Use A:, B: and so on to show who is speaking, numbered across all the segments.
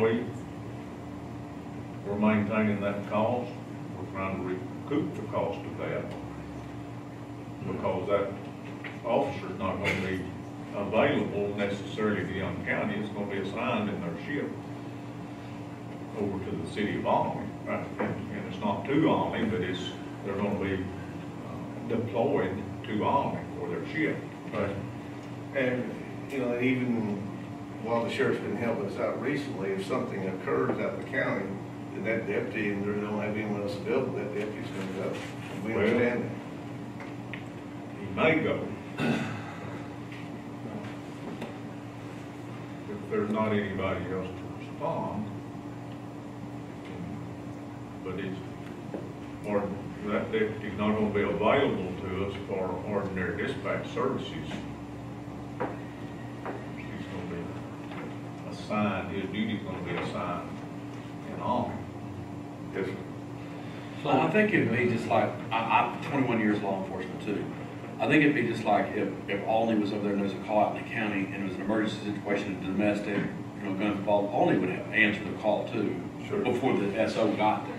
A: week. We're maintaining that cost, we're trying to recoup the cost of that, because that officer's not gonna be available necessarily to Young County, it's gonna be assigned in their shift over to the city of Almy, right? And and it's not to Almy, but it's, they're gonna be uh, deployed to Almy for their shift.
B: Right. And, you know, even while the sheriff's been helping us out recently, if something occurs out in the county, then that deputy, and they don't have anyone else available, that deputy's gonna go. We
A: Well-
B: understand that.
A: He may go. If there's not anybody else to respond. But it's, or that deputy's not gonna be available to us for ordinary dispatch services. He's gonna be assigned, his duty's gonna be assigned in Almy.
B: Yes, sir.
C: So I think it'd be just like, I, I'm twenty-one years law enforcement too. I think it'd be just like if, if Alney was over there and there was a call out in the county and it was an emergency situation, domestic, you know, gun involved, Alney would have answered the call too.
B: Sure.
C: Before the SO got there.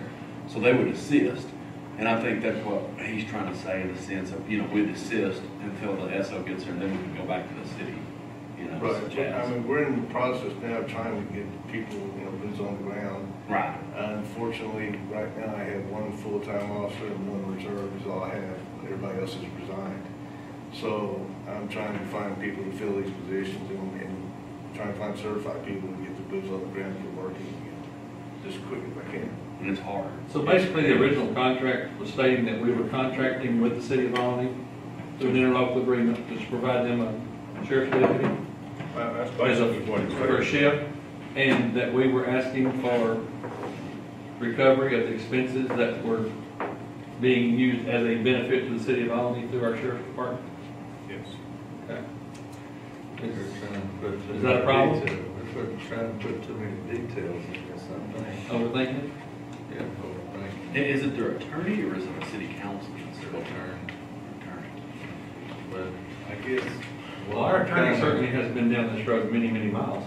C: So they would assist. And I think that's what he's trying to say in the sense of, you know, we'd assist until the SO gets there and then we can go back to the city, you know,
B: Right, I
C: jazz.
B: mean, we're in the process now of trying to get people, you know, boots on the ground.
C: Right.
B: Unfortunately, right now, I have one full-time officer and one reserve is all I have. Everybody else has resigned. So I'm trying to find people to fill these positions and, and trying to find certified people to get the boots on the ground for working again, just as quick as I can.
C: And it's hard.
D: So basically, the original contract was stating that we were contracting with the city of Alny through an interlocal agreement to provide them a sheriff's deputy
A: That- That's
D: as a,
A: basically what it's.
D: for a shift, and that we were asking for recovery of the expenses that were being used as a benefit to the city of Alny through our sheriff's department.
A: Yes.
D: Okay.
E: Is
D: Is that a problem?
E: We're put- trying to put too many details in this, I think.
D: Overthinking it?
E: Yeah, overthinking.
C: I- Is it their attorney or is it a city councilman? It's their
E: Attorney.
C: Attorney.
E: But I guess. what
D: Well, our
E: I'm
D: attorney
E: kinda-
D: certainly has been down this road many, many miles.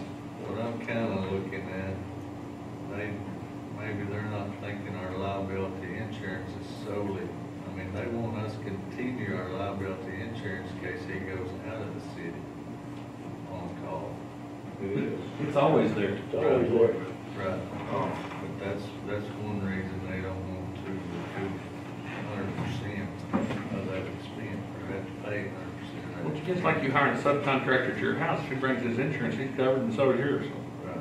E: What I'm kinda looking at, they, maybe they're not thinking our liability insurance is solely, I mean, they want us to continue our liability insurance in case he goes out of the city on call.
B: It is.
D: It's always there.
E: Right. Oh, But that's, that's one reason they don't want to recoup hundred percent of that expense, or have to pay hundred percent of
D: Well,
E: that.
D: Just like you hiring a subcontractor to your house, he brings his insurance, he's covered, and so is yours.
E: Right.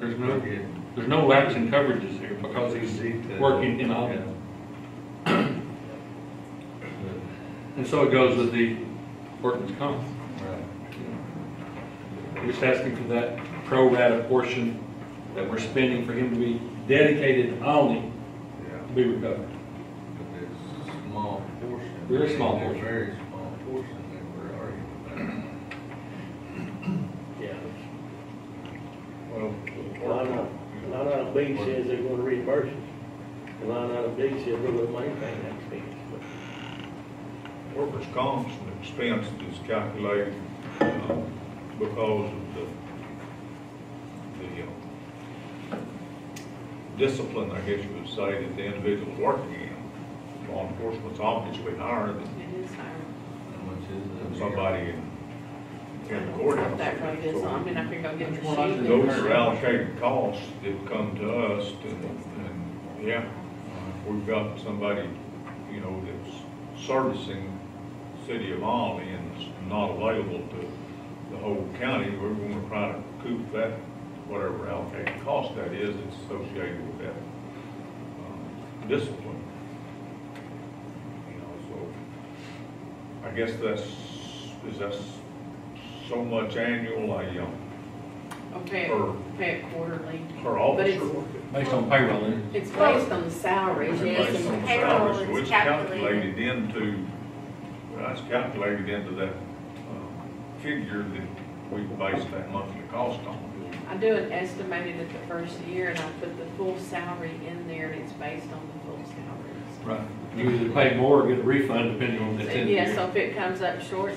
D: There's no-
E: Yeah.
D: There's no lapse in coverages here because
E: Detail.
D: he's working in office.
E: Yeah.
D: And so it goes with the workman's comp.
E: Right.
D: We're just asking for that pro rata portion that we're spending for him to be dedicated only
E: Yeah.
D: to be recovered.
E: But there's a small portion.
D: Very small
E: There's a
D: portion.
E: Very small portion that we're arguing
F: Yeah,
A: Well,
F: line item, line item B says they're gonna reimburse us. And line item D says we're gonna maintain that expense, but
A: Workers' comp's an expense that's calculated uh, because of the, the uh, discipline, I guess you would say, that the individual's working in. Law enforcement's obviously higher than
G: It is higher.
E: about. How much is it?
A: somebody in, in the
G: Up
A: courthouse.
G: Mm-hmm. That road is, I mean, I could go get the
D: Well, I
G: sheet.
D: could
A: Those are allocated costs that come to us, and, and, yeah, if we've got somebody, you know, that's servicing city of Alny and is not available to the whole county, we're gonna try to recoup that, whatever allocated cost that is that's associated with that um, discipline. You know, so, I guess that's, is that so much annual, I, um,
G: Okay,
A: Or-
G: pay it quarterly.
A: per
G: But
A: officer.
G: it's-
D: Based on payroll, isn't it?
G: It's based on the salaries, yes,
A: Based on
G: and
A: the
H: payroll
A: salary, so
H: is
A: it's
H: calculated.
A: calculated into, well, it's calculated into that uh, figure that we base that monthly cost on.
G: I do an estimated at the first year, and I put the full salary in there, and it's based on the full salaries.
D: Right. You either pay more or get a refund depending on the
G: So,
D: ten years.
G: Yeah, so if it comes up short,